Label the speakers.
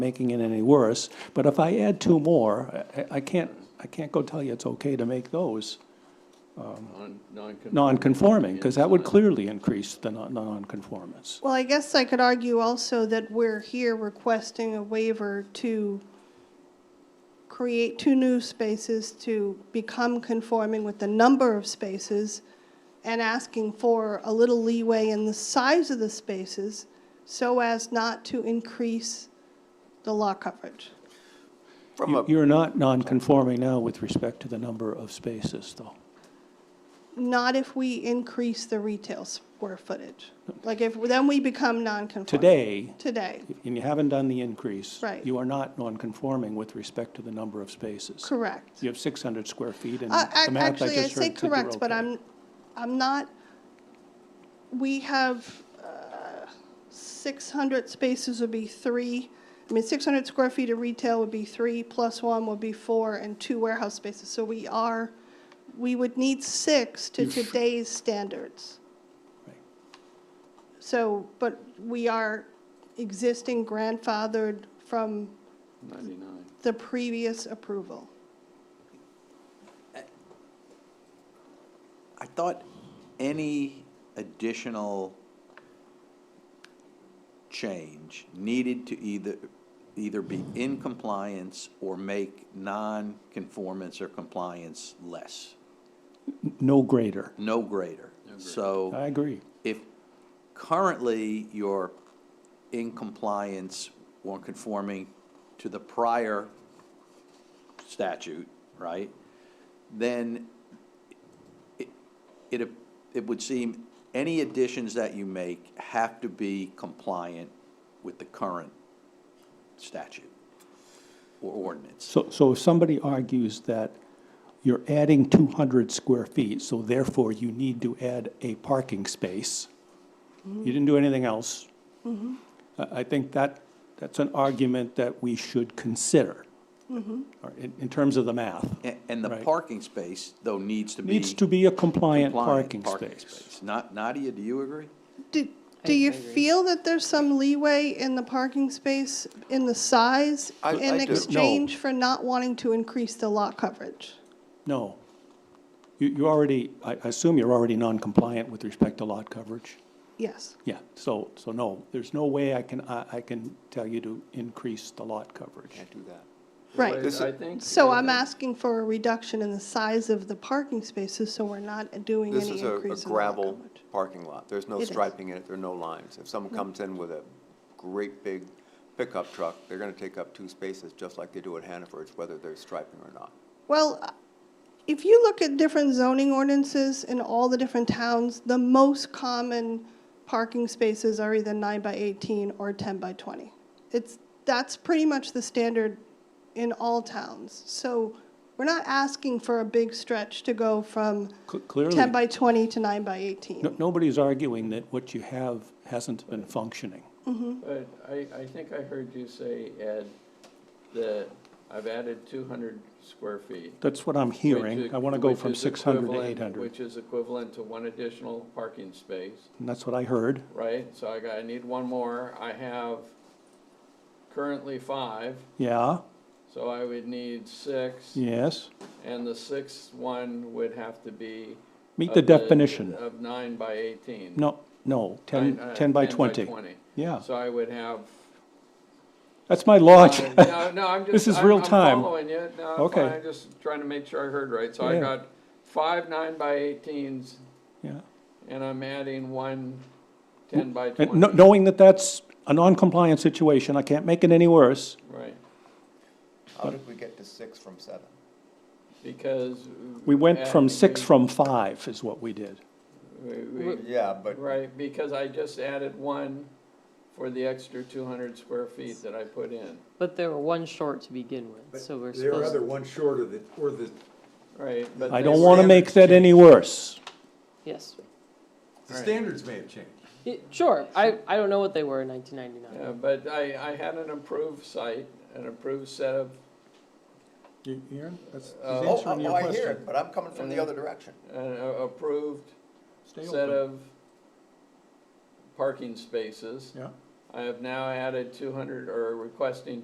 Speaker 1: making it any worse. But if I add two more, I- I, I can't, I can't go tell you it's okay to make those
Speaker 2: Non- non-conforming.
Speaker 1: non-conforming, because that would clearly increase the non- non-conformance.
Speaker 3: Well, I guess I could argue also that we're here requesting a waiver to create two new spaces to become conforming with the number of spaces and asking for a little leeway in the size of the spaces so as not to increase the law coverage.
Speaker 4: From a,
Speaker 1: You're not non-conforming now with respect to the number of spaces, though.
Speaker 3: Not if we increase the retail square footage. Like if, then we become non-conforming.
Speaker 1: Today,
Speaker 3: Today,
Speaker 1: and you haven't done the increase.
Speaker 3: Right.
Speaker 1: You are not non-conforming with respect to the number of spaces.
Speaker 3: correct.
Speaker 1: You have 600 square feet, and
Speaker 3: Uh, ac-
Speaker 1: the math I
Speaker 3: Actually, I
Speaker 1: just
Speaker 3: say
Speaker 1: heard said you're
Speaker 3: correct, but
Speaker 1: okay.
Speaker 3: I'm, I'm not, we have, uh, 600 spaces would be three, I mean, 600 square feet of retail would be three, plus one would be four, and two warehouse spaces. So we are, we would need six to
Speaker 1: You've-
Speaker 3: today's standards.
Speaker 1: Right.
Speaker 3: So, but we are existing grandfathered from
Speaker 2: Ninety-nine.
Speaker 3: the previous approval.
Speaker 4: I thought any additional change needed to either, either be in compliance or make non-conformance or compliance less,
Speaker 1: No greater.
Speaker 4: no greater. So.
Speaker 1: I agree.
Speaker 4: if currently you're in compliance or conforming to the prior statute, right? Then it, it, it would seem any additions that you make have to be compliant with the current statute or ordinance.
Speaker 1: So, so if somebody argues that you're adding 200 square feet, so therefore you need to add a parking space, you didn't do anything else, I, I think that, that's an argument that we should consider, Or in, in terms of the math.
Speaker 4: And, and the
Speaker 1: Right.
Speaker 4: parking space, though, needs to be.
Speaker 1: Needs to be a compliant
Speaker 4: compliant
Speaker 1: parking space.
Speaker 4: Not, Nadia, do you agree?
Speaker 3: Do, do you feel that there's some leeway in the parking space in the size
Speaker 4: I- I
Speaker 3: in
Speaker 4: do. No.
Speaker 3: exchange for not wanting to increase the lot coverage?
Speaker 1: No. You, you already, I I assume you're already non-compliant with respect to lot coverage?
Speaker 3: Yes.
Speaker 1: Yeah, so, so no, there's no way I can, I, I can tell you to increase the lot coverage.
Speaker 4: do that.
Speaker 3: Right.
Speaker 2: But I think.
Speaker 3: So I'm
Speaker 2: that-
Speaker 3: asking for a reduction in the size of the parking spaces, so we're not doing
Speaker 5: This
Speaker 3: any
Speaker 5: is a- a
Speaker 3: increase in the lot
Speaker 5: gravel
Speaker 3: coverage.
Speaker 5: parking lot. There's no
Speaker 3: It is. Mm-hmm.
Speaker 5: striping in it, there are no lines. If someone comes in with a great big pickup truck, they're gonna take up two spaces, just like they do at Hannaford's, whether there's striping or not.
Speaker 3: Well, if you look at different zoning ordinances in all the different towns, the most common parking spaces are either nine by eighteen or ten by twenty. It's, that's pretty much the standard in all towns. So we're not asking for a big stretch to go from
Speaker 1: Cl- Clearly.
Speaker 3: ten by twenty to nine by
Speaker 1: No-
Speaker 3: eighteen.
Speaker 1: Nobody's arguing that what you have hasn't been functioning.
Speaker 2: But I, I think I heard you say, Ed, that I've added two hundred square feet.
Speaker 1: That's what I'm
Speaker 2: which
Speaker 1: hearing.
Speaker 2: is-
Speaker 1: I want to go
Speaker 2: which
Speaker 1: from
Speaker 2: is
Speaker 1: 600 to
Speaker 2: equivalent-
Speaker 1: 800.
Speaker 2: Which is equivalent to one additional parking space,
Speaker 1: And that's what I heard.
Speaker 2: right? So I got, I need one more. I have currently five,
Speaker 1: Yeah,
Speaker 2: so I would need six.
Speaker 1: yes.
Speaker 2: And the sixth one would have to be.
Speaker 1: Meet
Speaker 2: of
Speaker 1: the definition.
Speaker 2: Of nine by eighteen.
Speaker 1: No, no, 10,
Speaker 2: Nine, uh,
Speaker 1: 10 by 20. Yeah,
Speaker 2: So I would have.
Speaker 1: that's my logic.
Speaker 2: No, no, I'm just.
Speaker 1: This is
Speaker 2: I'm-
Speaker 1: real
Speaker 2: I'm
Speaker 1: time.
Speaker 2: following you. No, I'm
Speaker 1: Okay.
Speaker 2: fine. I'm just trying to make sure I heard right. So I
Speaker 1: Yeah.
Speaker 2: got five nine by eighteens
Speaker 1: Yeah.
Speaker 2: and I'm adding one ten by
Speaker 1: And
Speaker 2: twenty.
Speaker 1: kno- knowing that that's a non-compliant situation, I can't make it any worse.
Speaker 2: Right,
Speaker 5: How did we get to six from seven?
Speaker 2: because.
Speaker 1: We went
Speaker 2: uh,
Speaker 1: from six
Speaker 2: we-
Speaker 1: from five is what we did.
Speaker 2: we- we-
Speaker 5: Yeah, but.
Speaker 2: Right, because I just added one for the extra two hundred square feet that I put in,
Speaker 6: But there were one short to begin with, so we're
Speaker 7: But There are
Speaker 6: supposed,
Speaker 7: other ones short of the, or the,
Speaker 2: right? but
Speaker 1: I
Speaker 2: they
Speaker 1: don't
Speaker 2: were-
Speaker 1: want to make that any worse.
Speaker 6: yes.
Speaker 7: the
Speaker 2: Right.
Speaker 7: standards may have changed.
Speaker 6: Y- Sure, I, I don't know what they were in nineteen ninety-nine.
Speaker 2: Yeah, but I, I had an approved site, an approved set of,
Speaker 7: Aaron, that's,
Speaker 2: Uh,
Speaker 5: Oh, oh, I hear it, but I'm coming from the other direction.
Speaker 2: an a- approved set of parking spaces.
Speaker 7: Yeah.
Speaker 2: I have now added two hundred, or requesting